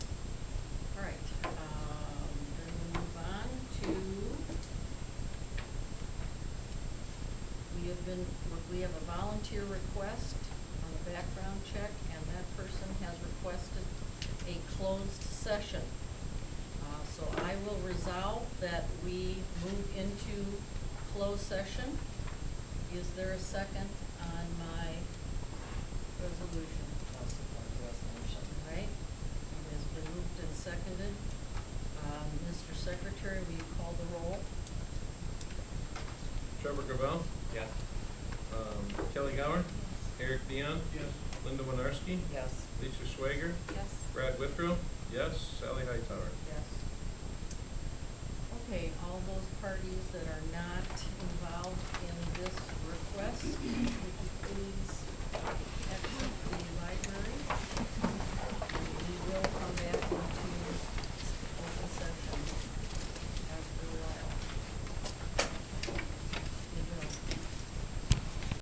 um, We have a volunteer request on the background check, and that person has requested a closed session. Uh, So I will resolve that we move into closed session. Is there a second on my resolution? I'll support the resolution. All right, it has been moved and seconded. Um, Mr. Secretary, will you call the roll? Trevor Gravel, Yes. um, Kelly Gower, Eric Dion. Yes. Linda Winarski, Yes. Lisa Schwager, Yes. Brad Whitrow, yes, Sally Hightower. Yes. Okay, all those parties that are not involved in this request, would you please